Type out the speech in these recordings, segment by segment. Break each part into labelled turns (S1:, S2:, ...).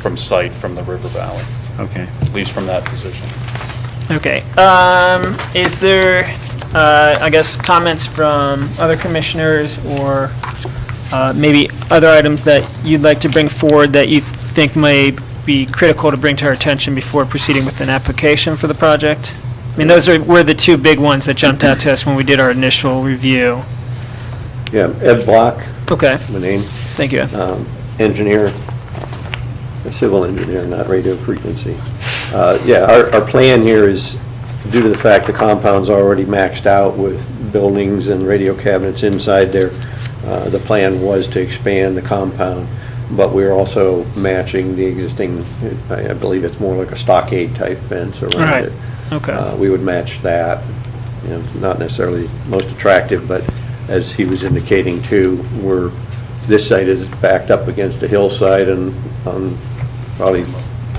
S1: from sight from the river valley,
S2: Okay.
S1: at least from that position.
S3: Okay. Um, is there, uh, I guess, comments from other commissioners or uh, maybe other items that you'd like to bring forward that you think may be critical to bring to our attention before proceeding with an application for the project? I mean, those are, were the two big ones that jumped out to us when we did our initial review.
S4: Yeah, Ed Block,
S3: Okay,
S4: my name,
S3: thank you.
S4: um, engineer, a civil engineer, not radio frequency. Uh, Yeah, our, our plan here is, due to the fact the compound's already maxed out with buildings and radio cabinets inside there, uh, the plan was to expand the compound, but we're also matching the existing, I I believe it's more like a stockade-type fence around
S3: Right.
S4: it. Uh,
S3: Okay,
S4: We would match that, you know, not necessarily most attractive, but as he was indicating too, we're, this site is backed up against a hillside and on probably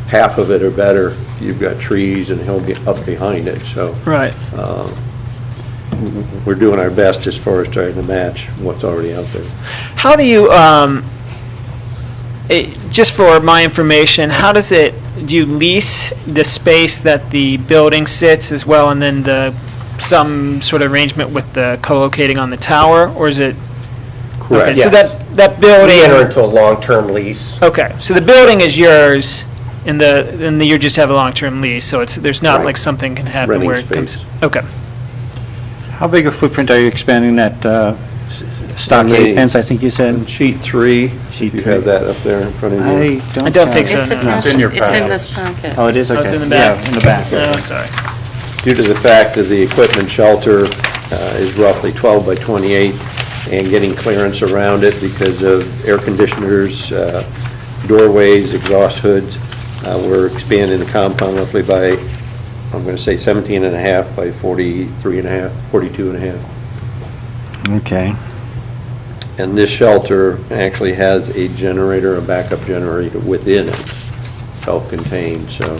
S4: half of it or better, you've got trees and he'll get up behind it, so
S3: right.
S4: we're doing our best as far as trying to match what's already out there.
S3: How do you, um, it, just for my information, how does it, do you lease the space that the building sits as well, and then the, some sort of arrangement with the co-locating on the tower, or is it? Okay, so
S4: Yes.
S3: that, that
S5: We enter into
S3: building,
S5: a long-term lease.
S3: okay, so the building is yours, and the, and the- you just have a long-term lease, so it's, there's not
S4: Right.
S3: like something can happen
S4: Renting
S3: where it comes.
S4: space.
S3: Okay,
S2: How big a footprint are you expanding that uh, s-
S4: Many.
S2: stockade fence, I think you
S4: And
S2: said?
S4: sheet three, if
S2: Sheet
S4: you
S2: three.
S4: have that up there in front of you.
S2: I don't.
S3: I don't think
S2: have-
S3: so.
S6: It's
S3: no, no.
S6: attached,
S1: It's in your
S6: it's in
S1: packet.
S6: this packet.
S2: Oh, it is, okay.
S3: it's in the back.
S2: Yeah, in the back.
S3: No, sorry.
S4: Due to the fact that the equipment shelter uh, is roughly 12 by 28, and getting clearance around it because of air conditioners, uh, doorways, exhaust hoods, uh, we're expanding the compound roughly by, I'm going to say 17 and a half by 43 and a half, 42 and a half.
S2: Okay.
S4: And this shelter actually has a generator, a backup generator within it, self-contained, so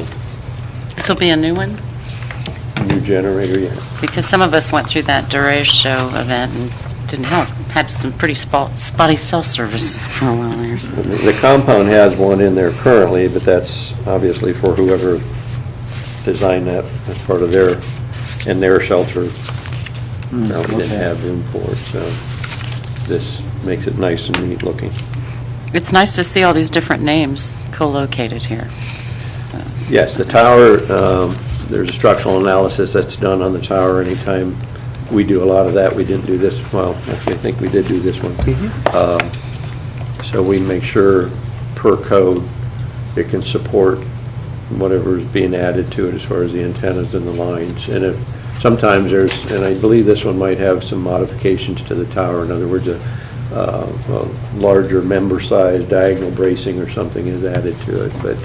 S6: This will be a new one,
S4: new generator, yeah.
S6: because some of us went through that Durage show event and didn't have, had some pretty spot- spotty cell service for a while there.
S4: The compound has one in there currently, but that's obviously for whoever designed that as part of their, and their shelter. Probably didn't
S2: okay.
S4: have room for it, so this makes it nice and neat looking.
S6: It's nice to see all these different names co-located here.
S4: Yes, the tower, um, there's a structural analysis that's done on the tower anytime. We do a lot of that. We didn't do this, well, actually, I think we did do this one. Um, So we make sure, per code, it can support whatever is being added to it as far as the antennas and the lines. And if, sometimes there's, and I believe this one might have some modifications to the tower. In other words, a uh, a larger member size diagonal bracing or something is added to it. But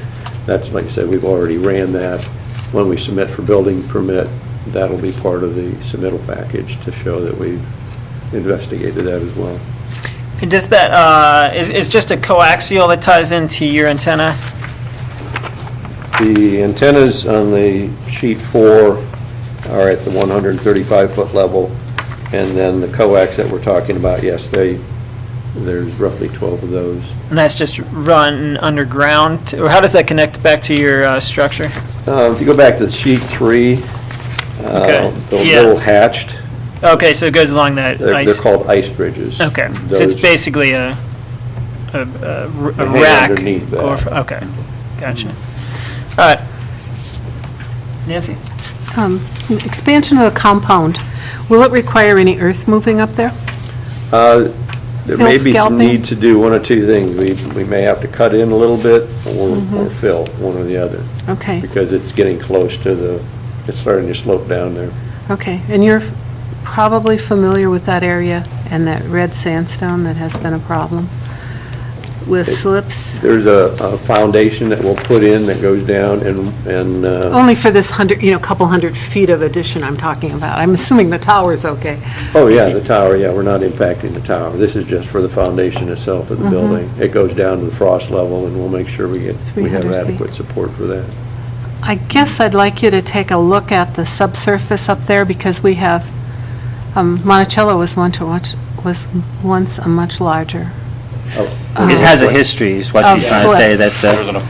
S4: that's, like I said, we've already ran that. When we submit for building permit, that'll be part of the submittal package to show that we've investigated that as well.
S3: And Does that, uh, is, is just a coaxial that ties into your antenna?
S4: The antennas on the sheet four are at the 135-foot level, and then the coax that we're talking about, yes, they, there's roughly 12 of those.
S3: And that's just run underground, or how does that connect back to your uh, structure?
S4: Uh, If you go back to sheet three, uh,
S3: Okay,
S4: the
S3: yeah.
S4: little hatched,
S3: Okay, so it goes along that
S4: they're they're
S3: ice.
S4: called ice bridges.
S3: Okay, so it's
S4: Those-
S3: basically a, a, a r-
S4: They
S3: a
S4: hang
S3: rack.
S4: underneath that.
S3: or- Okay, gotcha. All right. Nancy?
S7: Um, Expansion of the compound, will it require any earth moving up there?
S4: Uh, There may
S7: Hill
S4: be some
S7: scalping?
S4: need to do one or two things. We we may have to cut in a little bit or or fill, one or the other,
S7: Mm-hmm. Okay,
S4: because it's getting close to the, it's starting to slope down there.
S7: okay. And you're probably familiar with that area and that red sandstone that has been a problem with slips,
S4: There's a a foundation that we'll put in that goes down and, and uh,
S7: only for this hundred, you know, couple hundred feet of addition I'm talking about. I'm assuming the tower's okay.
S4: oh, yeah, the tower, yeah, we're not impacting the tower. This is just for the foundation itself of the building. It goes down to the frost level, and we'll make sure we get, we have
S7: 300 feet.
S4: adequate support for that.
S7: I guess I'd like you to take a look at the subsurface up there, because we have, um, Monticello was one to watch, was once a much larger
S4: Oh,
S2: It has a history, is Uh, what
S7: Of
S2: she's trying to
S7: slip.
S2: say, that. uh,
S1: There was an